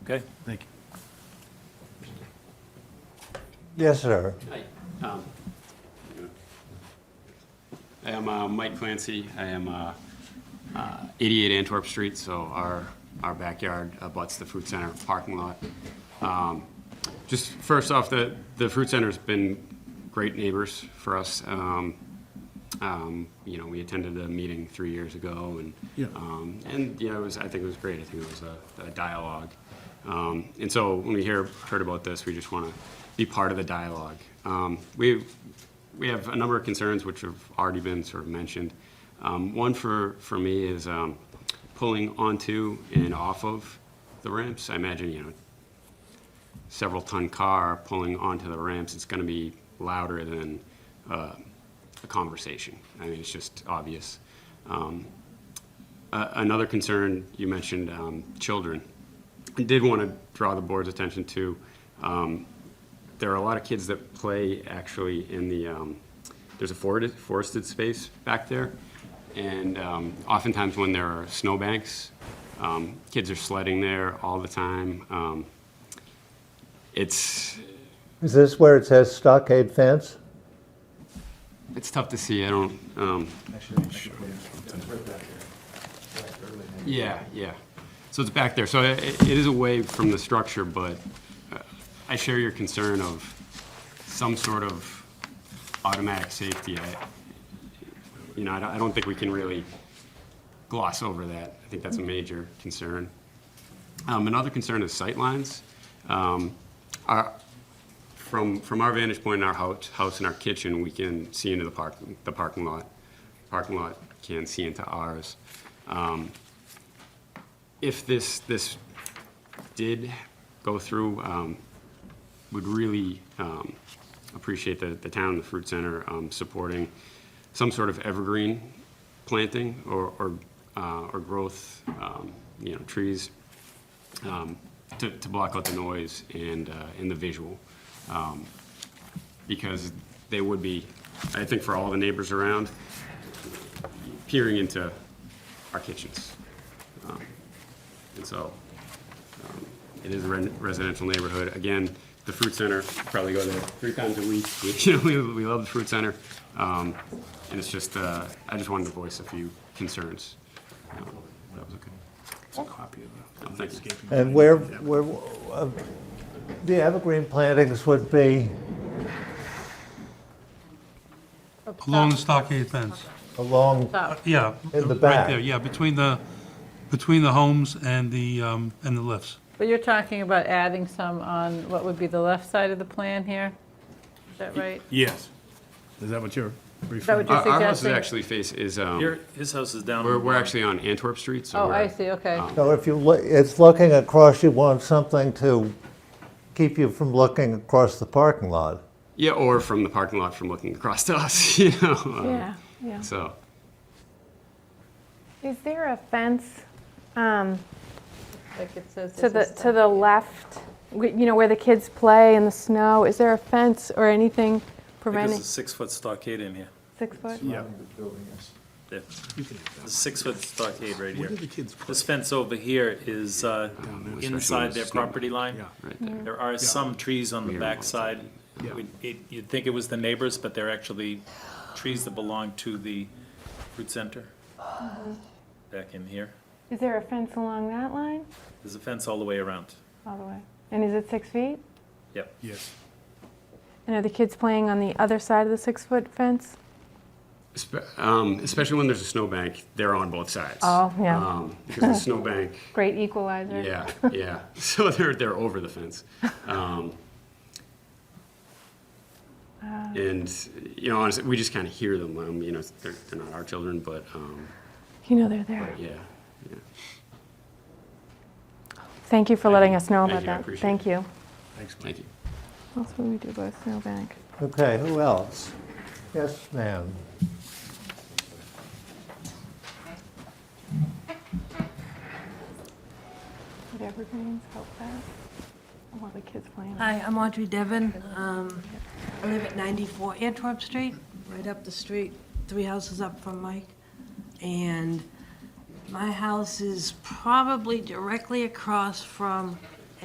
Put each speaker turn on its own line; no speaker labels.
Okay?
Thank you.
Yes, sir.
Hi, um, I am uh, Mike Clancy. I am uh, uh, 88 Antwerp Street, so our, our backyard abuts the food center parking lot. Um, Just first off, the, the food center's been great neighbors for us. Um, um, You know, we attended a meeting three years ago and,
Yeah.
um, and, you know, it was, I think it was great. I think it was a, a dialogue. Um, And so when we hear, heard about this, we just want to be part of the dialogue. Um, We, we have a number of concerns which have already been sort of mentioned. Um, One for, for me is um, pulling onto and off of the ramps. I imagine, you know, several ton car pulling onto the ramps, it's going to be louder than uh, a conversation. I mean, it's just obvious. Um, a- Another concern, you mentioned um, children. I did want to draw the board's attention to, um, there are a lot of kids that play actually in the, um, there's a forested, forested space back there. And um, oftentimes when there are snowbanks, um, kids are sledding there all the time. Um, It's,
Is this where it says stockade fence?
It's tough to see, I don't, um. Yeah, yeah. So it's back there, so i it is away from the structure, but uh, I share your concern of some sort of automatic safety. I- You know, I don't, I don't think we can really gloss over that. I think that's a major concern. Um, another concern is sightlines. Um, our, from, from our vantage point in our house, house and our kitchen, we can see into the park, the parking lot. Parking lot can see into ours. Um, If this, this did go through, um, would really, um, appreciate the, the town, the fruit center, um, supporting some sort of evergreen planting or, or, uh, or growth, um, you know, trees, um, to, to block out the noise and, uh, and the visual. Um, Because they would be, I think for all the neighbors around, peering into our kitchens. Um, And so, um, it is a ren- residential neighborhood. Again, the fruit center, probably go there three times a week. You know, we, we love the fruit center. Um, And it's just, uh, I just wanted to voice a few concerns. Um, That was okay.
It's a copy of the
Thank you.
landscaping.
And where, where, uh, the evergreen plantings would be
Along the stockade fence.
along,
Oh.
Uh, Yeah.
In the
Right
back.
there, yeah, between the, between the homes and the, um, and the lifts.
But you're talking about adding some on what would be the left side of the plan here? Is that right?
Yes. Is that what you're
that
referring?
what
Our
you're
our house is
suggesting?
actually face, is, um,
Here, his house is down.
We're, we're actually on Antwerp Street, so
Oh,
we're- um,
I see, okay.
so if you, loo- it's looking across, you want something to keep you from looking across the parking lot.
Yeah, or from the parking lot from looking across to us, you know? um,
Yeah, yeah.
So,
Is there a fence um,
Like it says
to the,
this is
to the left, wh- you know, where the kids play in the snow? Is there a fence or anything
I think there's
preventing,
a six-foot stockade in here.
six foot?
Yeah.
Yeah. There's a six-foot stockade right here.
Where do the kids play?
This fence over here is uh,
there, especially
inside their
with snow.
property line.
Yeah.
right there.
There are some trees on the
Yeah.
backside.
Yeah.
We- it- You'd think it was the neighbors, but they're actually trees that belong to the fruit center. Back in here.
Is there a fence along that line,
There's a fence all the way around.
all the way? And is it six feet?
Yep.
Yes.
And are the kids playing on the other side of the six-foot fence?
Espe- um, Especially when there's a snowbank, they're on both sides.
Oh, yeah.
Um, Because the snowbank,
Great equalizer.
yeah, yeah. So they're, they're over the fence. Um,
Uh.
And, you know, honestly, we just kind of hear them, um, you know, they're, they're not our children, but, um,
You know they're there.
yeah, yeah.
Thank you for
Thank
letting
you.
us know
Thank
about
you, I
that.
appreciate
Thank
it.
you.
Thanks, Mike.
Thank you.
That's what we do by Snowbank.
Okay, who else? Yes, ma'am.
Would evergreens help that? While the kids playing?
Hi, I'm Audrey Devon. Um, I live at 94 Antwerp Street, right up the street, three houses up from Mike. And my house is probably directly across from